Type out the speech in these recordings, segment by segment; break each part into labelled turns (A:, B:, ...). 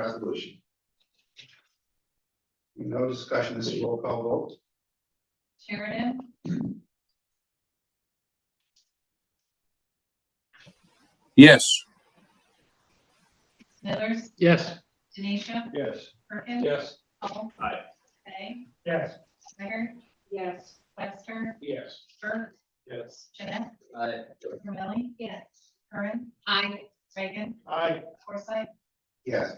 A: resolution. No discussion, this is roll call vote.
B: Sheridan?
C: Yes.
B: Smithers?
D: Yes.
B: Denisha?
A: Yes.
B: Perkins?
D: Yes.
B: Paul?
A: Aye.
B: Hey?
D: Yes.
B: Snyder? Yes. Lester?
D: Yes.
B: Bert?
D: Yes.
B: Jeanette?
D: Aye.
B: Romelli? Yes. Curran? Aye. Reagan?
D: Aye.
B: Forsythe?
A: Yes,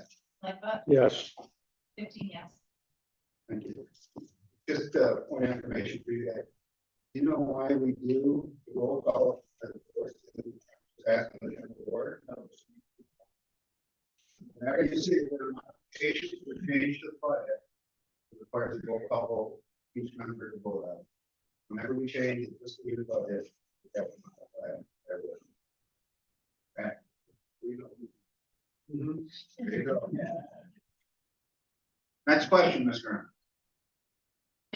B: Lightfoot?
D: Yes.
B: Fifteen yes.
A: thank you. Just a point of information for you guys. Do you know why we do the roll call? at the first and last of the board? Now, you see, we're not patient, we change the project. The part of the roll call, vote, each member to vote out. Whenever we change it, just leave it about it. that was my plan, that was- Okay. We don't- There you go. Next question, Ms. Graham.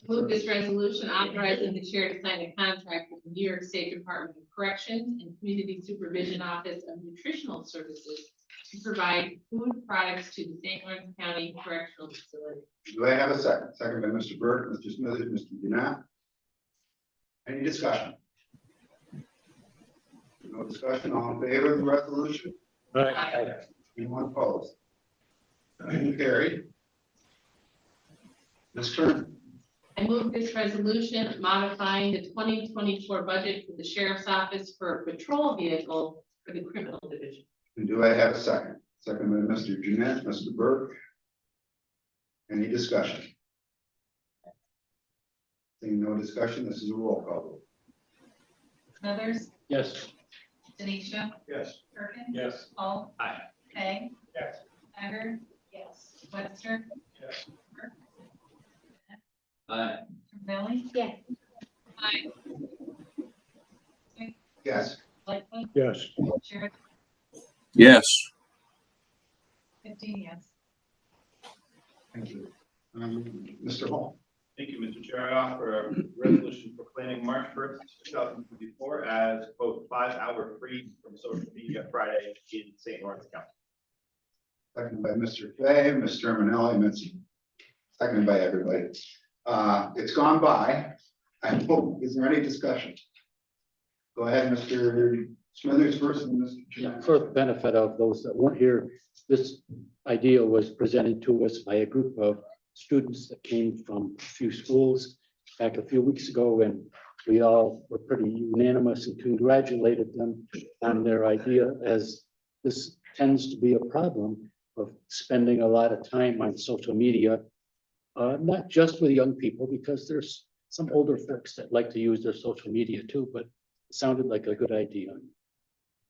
E: Move this resolution authorizing the chair to sign a contract with the New York State Department of Corrections and Community Supervision Office of Nutritional Services to provide food products to the St. Lawrence County Correctional Facility.
A: Do I have a second? Second by Mr. Burke, Mr. Smithers, Mr. Doonak. Any discussion? No discussion, all in favor of the resolution?
E: Aye.
A: Anyone opposed? Motion carried. Ms. Kern,
E: I move this resolution modifying the twenty twenty-four budget for the sheriff's office for a patrol vehicle for the criminal division.
A: and do I have a second? Second by Mr. Jeanette, Mr. Burke. Any discussion? Seeing no discussion, this is a roll call vote.
B: Smithers?
D: Yes.
B: Denisha?
D: Yes.
B: Perkins?
D: Yes.
B: Paul?
D: Aye.
B: Hey?
D: Yes.
B: Snyder? Yes. Lester?
D: Yes.
B: Romelli?
E: Yes.
B: Aye.
A: Yes,
B: Lightfoot?
D: Yes.
B: Sheridan?
C: Yes.
B: Fifteen yes.
A: thank you. Um, Mr. Hall,
F: Thank you, Mr. Chair. I offer a resolution proclaiming March first, two thousand twenty-four as quote, five-hour free from social media Friday in St. Lawrence County.
A: second by Mr. Fay, Mr. Manelli, Mr. Seconded by everybody. Uh, it's gone by. I hope, is there any discussion? Go ahead, Mr. Smithers first and Mr.
G: Yeah,
A: Jeanette.
G: For the benefit of those that weren't here, this idea was presented to us by a group of students that came from a few schools back a few weeks ago, and we all were pretty unanimous and congratulated them on their idea, as this tends to be a problem of spending a lot of time on social media. Uh, not just with young people, because there's some older folks that like to use their social media too, but it sounded like a good idea.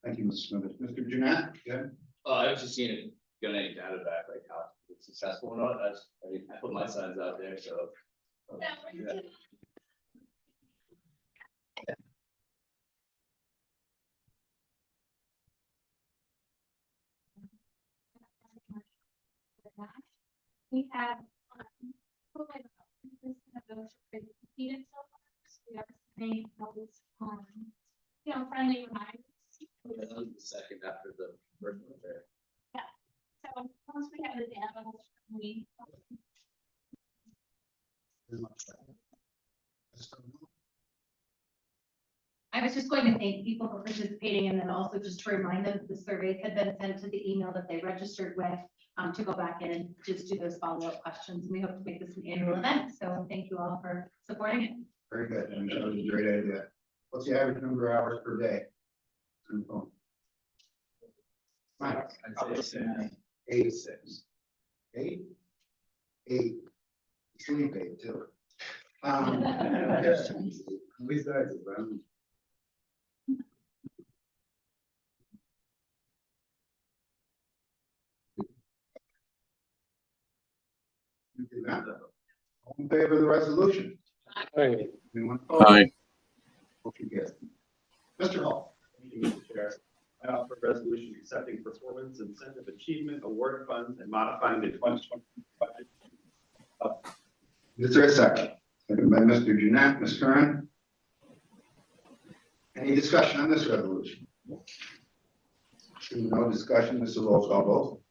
A: Thank you, Mr. Smithers. Mr. Jeanette, yeah,
H: Uh, I was just seeing, if you got any data back, like how successful or not, that's, I mean, I put my signs out there, so. um, yeah.
I: We have. um, who have this kind of those who have competed so far, so we have made those, um, you know, friendly reminders.
H: That was the Second after the first one there.
I: So once we have the animals, we.
J: I was just going to thank people for participating and then also just to remind them that the surveys had been sent to the email that they registered with um, to go back in and just do those follow-up questions. We hope to make this an annual event. So thank you all for supporting it.
A: very good. And that was a great idea. What's the average number of hours per day? on the phone? Mike?
H: I'd say six.
A: Eight, six. Eight? Eight. Sleep eight too. Um, yeah. At least I do, but I'm- You did not, though. All in favor of the resolution?
G: Aye.
A: Anyone?
C: Aye.
A: Motion carries. Mr. Hall,
F: Thank you, Mr. Chair. I offer a resolution accepting performance incentive achievement award funds and modifying the twenty twenty budget.
A: is there a second? Second by Mr. Jeanette, Ms. Curran. Any discussion on this resolution? Seeing no discussion, this is a roll call vote.